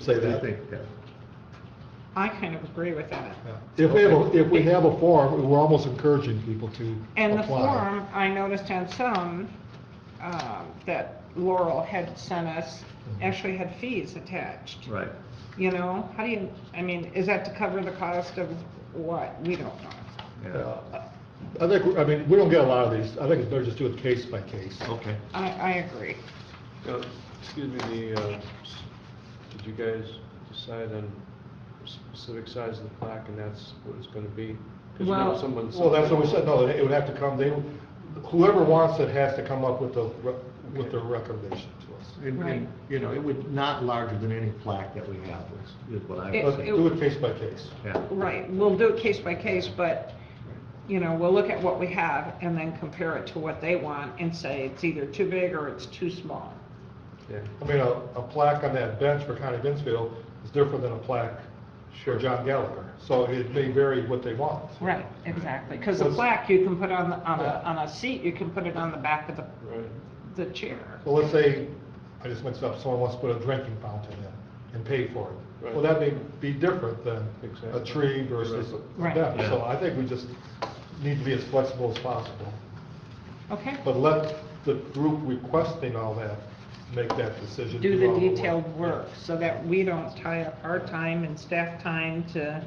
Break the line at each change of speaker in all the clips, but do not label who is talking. say
I
that.
think, yeah.
I kind of agree with that.
yeah.
If we have, a if we have a form, we're almost encouraging people to apply.
And the form, I noticed on some, um, that Laurel had sent us,
Mm-hmm.
actually had fees attached.
Right.
You know, how do you, I mean, is that to cover the cost of what? We don't know.
Yeah.
Yeah. I think, I mean, we don't get a lot of these, I think it's better just do it case by case.
Okay.
I, I agree.
Uh, Excuse me, the, uh, s- did you guys decide on the specific size of the plaque and that's what it's gonna be? 'Cause you know
Well-
someone-
Well, that's what we said, no, it would have to come, they, whoever wants it has to come up with the, re- with the recommendation to us.
And,
Right.
and, you know, it would, not larger than any plaque that we have is, is what I would
It-
Let's
say.
it-
do it case by case.
Yeah.
Right, we'll do it case by case, but, you know, we'll look at what we have and then compare it to what they want and say it's either too big or it's too small.
Yeah,
I mean, a, a plaque on that bench for Connie Binsfield is different than a plaque for John Gallagher. So it may vary what they want.
Right, exactly, because the
Let's-
plaque, you can put on, the- on a,
Yeah.
on a seat, you can put it on the back of the,
right.
the chair.
Well, let's say, I just mixed up, someone wants to put a drinking fountain in and pay for it. Well, that may be different than a
Exactly.
tree versus a
Right.
bench. So
Yeah.
I think we just need to be as flexible as possible.
Okay,
But let the group requesting all that make that decision.
do the
all work.
detailed work so that we don't tie up our time and staff time to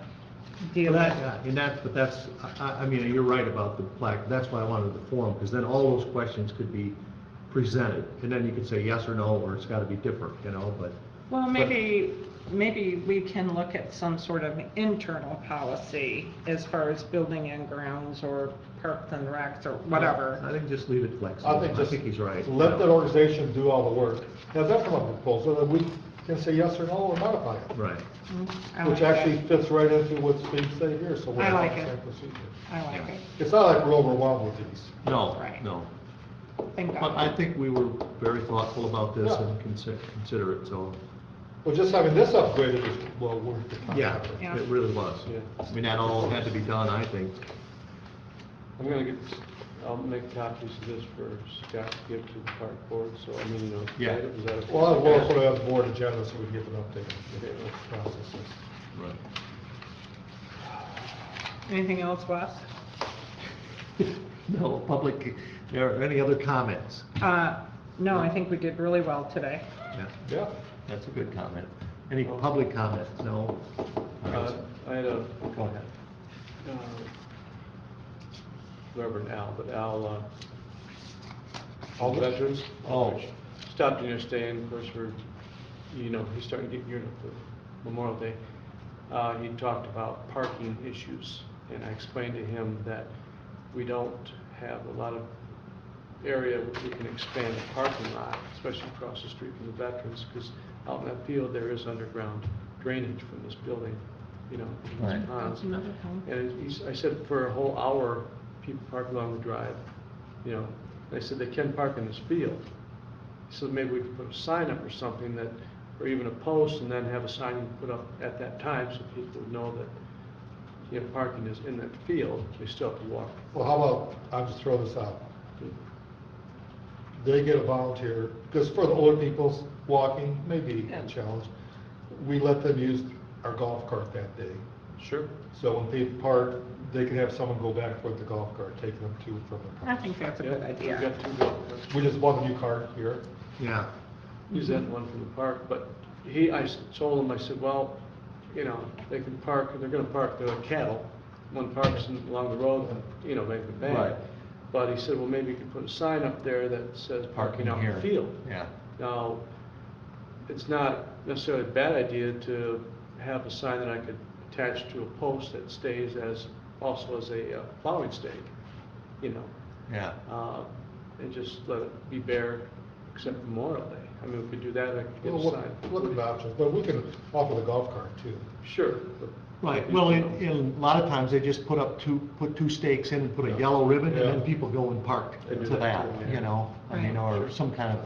deal
Well,
with.
that- yeah, And that's, but uh, that's, I, I mean, you're right about the plaque, that's why I wanted the forum, because then all those questions could be presented, and then you could say yes or no, or it's gotta be different, you know, but,
Well, maybe, maybe we can look at some sort of internal policy as far as building and grounds or parks and recs or
I
whatever.
think just leave it flexible.
I think just.
he's right.
Let
yeah.
that organization do all the work. Have them come up with a proposal, then we can say yes or no or modify it.
Right,
Mm, I
Which
like
actually
that.
fits right into what Steve said here, so we're.
I
on
like
the
it.
same procedure.
I like it.
It's not like we're overwhelmed with these.
no,
Right.
no.
Thank
But I
God.
think we were very thoughtful about this
Yeah.
and consider- considerate, so,
Well, just having this upgraded is well worth the time.
yeah,
Yeah.
it really was.
Yeah.
I mean, that all had to be done, I think.
I'm gonna get, I'll make copies of this for Scott to give to the park board, so I mean, you know.
Yeah.
is that a-
Well, I'll work sort of on the board agenda so we can give an update
Okay.
on the processes.
Right.
Anything else, Wes?
No, public, there are any other comments?
Uh, no, I think we did really well today.
Yeah,
Yeah,
that's a good comment. Any public comments? No?
Uh, I had a
Go ahead.
uh, Reverend Al, but Al, uh, all veterans.
Oh.
Stopped in yesterday, and of course, we're, you know, he's starting to get geared up for Memorial Day. Uh, he talked about parking issues, and I explained to him that we don't have a lot of area where we can expand the parking lot, especially across the street from the veterans, because out in that field, there is underground drainage from this building, you know, from
Right.
these ponds.
another comment.
And he's, I said, for a whole hour, people park along the drive, you know, and I said, they can park in this field. So maybe we could put a sign up or something that, or even a post, and then have a sign put up at that time, so people know that, you know, parking is in that field, they still have to walk.
well, how about, I'll just throw this out. They get a volunteer, because for the older people, walking may be a challenge. We let them use our golf cart that day.
Sure.
So when they park, they can have someone go back with the golf cart, taking them to and from the
I
park.
think that's a
Yeah,
good
We've
idea.
got two golf carts.
We just bought a new cart here.
Yeah,
He's that one from the park, but he, I s- told him, I said, well, you know, they can park, they're gonna park their cattle. One parks in- along the road, you know, make the
Right.
bank. But he said, well, maybe you could put a sign up there that says parking out in the field.
yeah.
Now, it's not necessarily a bad idea to have a sign that I could attach to a post that stays as, also as a uh, plowing stake, you know?
Yeah,
uh, and just let it be bare except for Memorial Day. I mean, if we do that, I could get
We'll
a
look
sign.
look at the options, but we can offer the golf cart too.
Sure. but-
right, well, in, in a lot of times, they just put up two, put two stakes in and put a yellow ribbon, and then
Yeah.
people go and park
They do
to that,
that too, yeah.
you know? I mean, or some kind of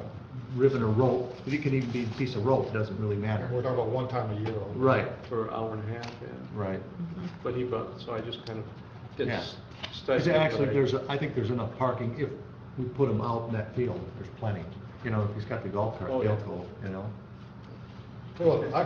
ribbon or rope, it can even be a piece of rope, doesn't really
We're
matter.
talking about one time a year. only.
Right,
For an hour and a half, yeah.
right.
But he brought, so I just kind of did
Yeah.
s-
Because
study.
actually,
but I-
there's, a- I think there's enough parking if we put them out in that field, there's plenty. You know, if he's got the golf cart,
Oh,
they'll
yeah.
go, you know?
Well, I